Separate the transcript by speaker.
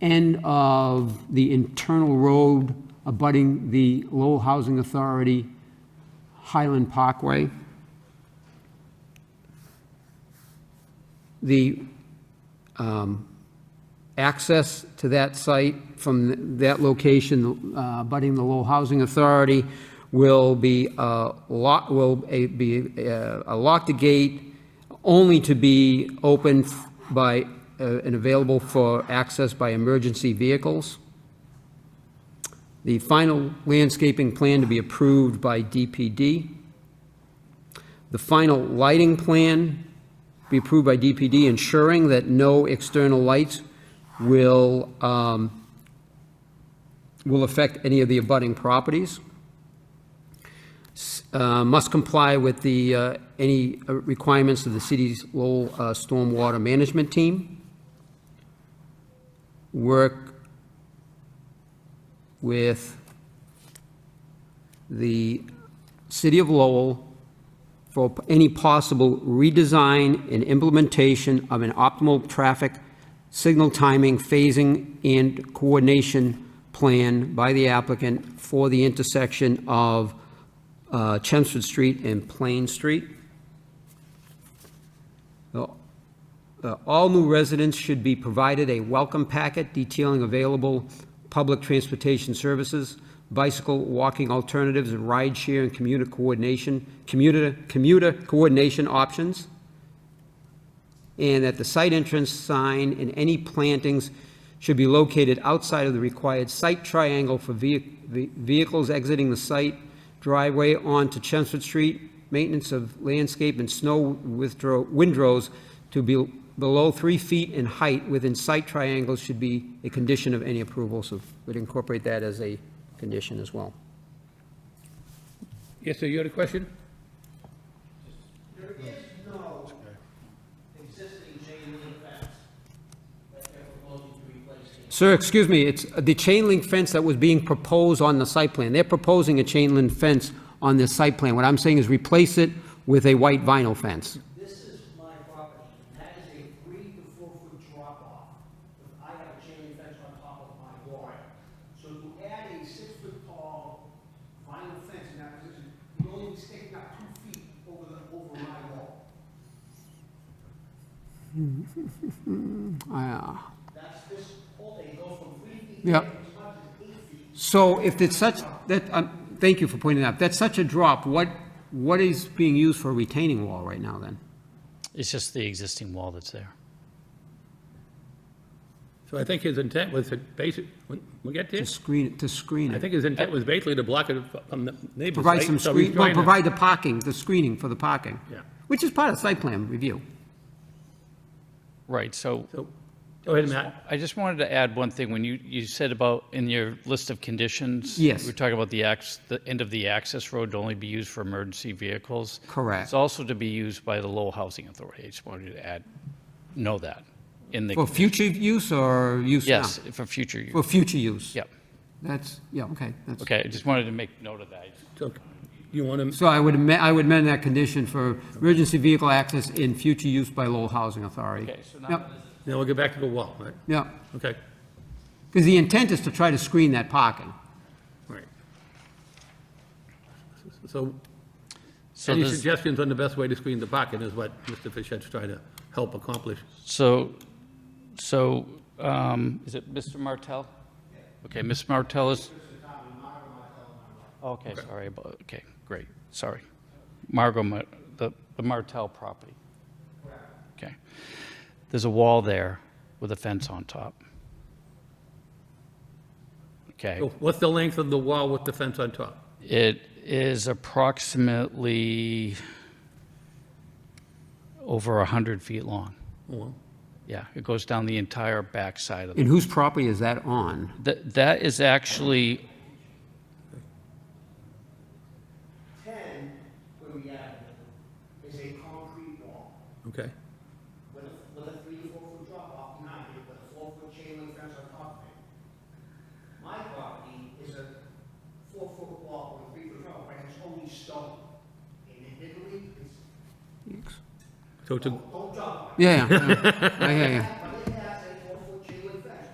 Speaker 1: end of the internal road abutting the Lowell Housing Authority Highland Parkway. The um, access to that site from that location, uh, abutting the Lowell Housing Authority, will be a lock, will a- be uh, a locked gate only to be opened by, uh, and available for access by emergency vehicles. The final landscaping plan to be approved by DPD. The final lighting plan be approved by DPD, ensuring that no external lights will, um, will affect any of the abutting properties. S- uh, Must comply with the, uh, any uh, requirements of the city's Lowell uh, Stormwater Management Team. Work with the city of Lowell for any possible redesign and implementation of an optimal traffic signal timing, phasing, and coordination plan by the applicant for the intersection of uh, Chelmsford Street and Plain Street. The uh, All new residents should be provided a welcome packet detailing available public transportation services, bicycle, walking alternatives, and rideshare and commuter coordination, commuter, commuter coordination options. And that the site entrance sign and any plantings should be located outside of the required site triangle for vehi- ve- vehicles exiting the site, driveway onto Chelmsford Street, maintenance of landscape and snow withdraw, windrows to be below three feet in height within site triangles should be a condition of any approval, so we'd incorporate that as a condition as well.
Speaker 2: Yes, sir, you had a question?
Speaker 3: There is no existing chain link fence that they're proposing to replace here.
Speaker 1: Sir, excuse me, it's the chain link fence that was being proposed on the site plan. They're proposing a chain link fence on this site plan. What I'm saying is replace it with a white vinyl fence.
Speaker 3: This is my property, and that is a three to four foot drop off. I have a chain link fence on top of my yard. So to add a six foot tall vinyl fence in that position, you only be sticking out two feet over the, over my wall.
Speaker 1: Ah.
Speaker 3: That's this whole, they go from three feet
Speaker 1: Yeah.
Speaker 3: to as much as eight feet.
Speaker 1: So if it's such, that, um, thank you for pointing that out. That's such a drop, what, what is being used for a retaining wall right now then?
Speaker 4: It's just the existing wall that's there.
Speaker 2: So I think his intent was to basic, when we get
Speaker 1: To
Speaker 2: this,
Speaker 1: screen, to screen
Speaker 2: I
Speaker 1: it?
Speaker 2: think his intent was basically to block it from the neighbor's
Speaker 1: Provide
Speaker 2: site,
Speaker 1: some
Speaker 2: so he's
Speaker 1: screen, well,
Speaker 2: trying to-
Speaker 1: provide the parking, the screening for the parking.
Speaker 2: Yeah.
Speaker 1: Which is part of site plan review.
Speaker 4: Right, so
Speaker 2: So, go ahead, Matt.
Speaker 4: I just wanted to add one thing, when you, you said about, in your list of conditions.
Speaker 1: Yes.
Speaker 4: we We're talking about the ax, the end of the access road to only be used for emergency vehicles.
Speaker 1: Correct.
Speaker 4: It's also to be used by the Lowell Housing Authority, I just wanted you to add, know that, in the.
Speaker 1: For future use or use now?
Speaker 4: Yes, for future
Speaker 1: For
Speaker 4: use,
Speaker 1: future use?
Speaker 4: yep,
Speaker 1: That's, yeah, okay, that's.
Speaker 4: okay, I just wanted to make note of that.
Speaker 2: So, you want him,
Speaker 1: So I would, amen- I would amend that condition for emergency vehicle access in future use by Lowell Housing Authority.
Speaker 4: Okay, so now
Speaker 1: Yep,
Speaker 2: now we'll get back to the wall, right?
Speaker 1: yep,
Speaker 2: Okay,
Speaker 1: because the intent is to try to screen that parking.
Speaker 2: all right. So,
Speaker 4: So
Speaker 2: any
Speaker 4: there's-
Speaker 2: suggestions on the best way to screen the pocket is what Mr. Fischett's trying to help accomplish.
Speaker 4: So, so, um, is it Mr. Martell? Okay, Ms. Martell is? Okay, sorry, about- okay, great, sorry. Margot, Ma- the the Martell property. Okay. There's a wall there with a fence on top. Okay,
Speaker 2: So
Speaker 4: Oh.
Speaker 2: What's the length of the wall with the fence on top?
Speaker 4: it is approximately over 100 feet long.
Speaker 2: Well,
Speaker 4: Yeah, it goes down the entire backside of the
Speaker 1: And whose property is that on?
Speaker 4: That, that is actually,
Speaker 3: Ten, where we added it, is a concrete wall.
Speaker 2: Okay,
Speaker 3: with a, with a three to four foot drop off behind it, with a four foot chain link fence on top of it. My property is a four foot wall with a three foot drop, but it's only stone. And admittedly, it's,
Speaker 2: so to,
Speaker 3: don't drop on it.
Speaker 1: Yeah, yeah, yeah, I hear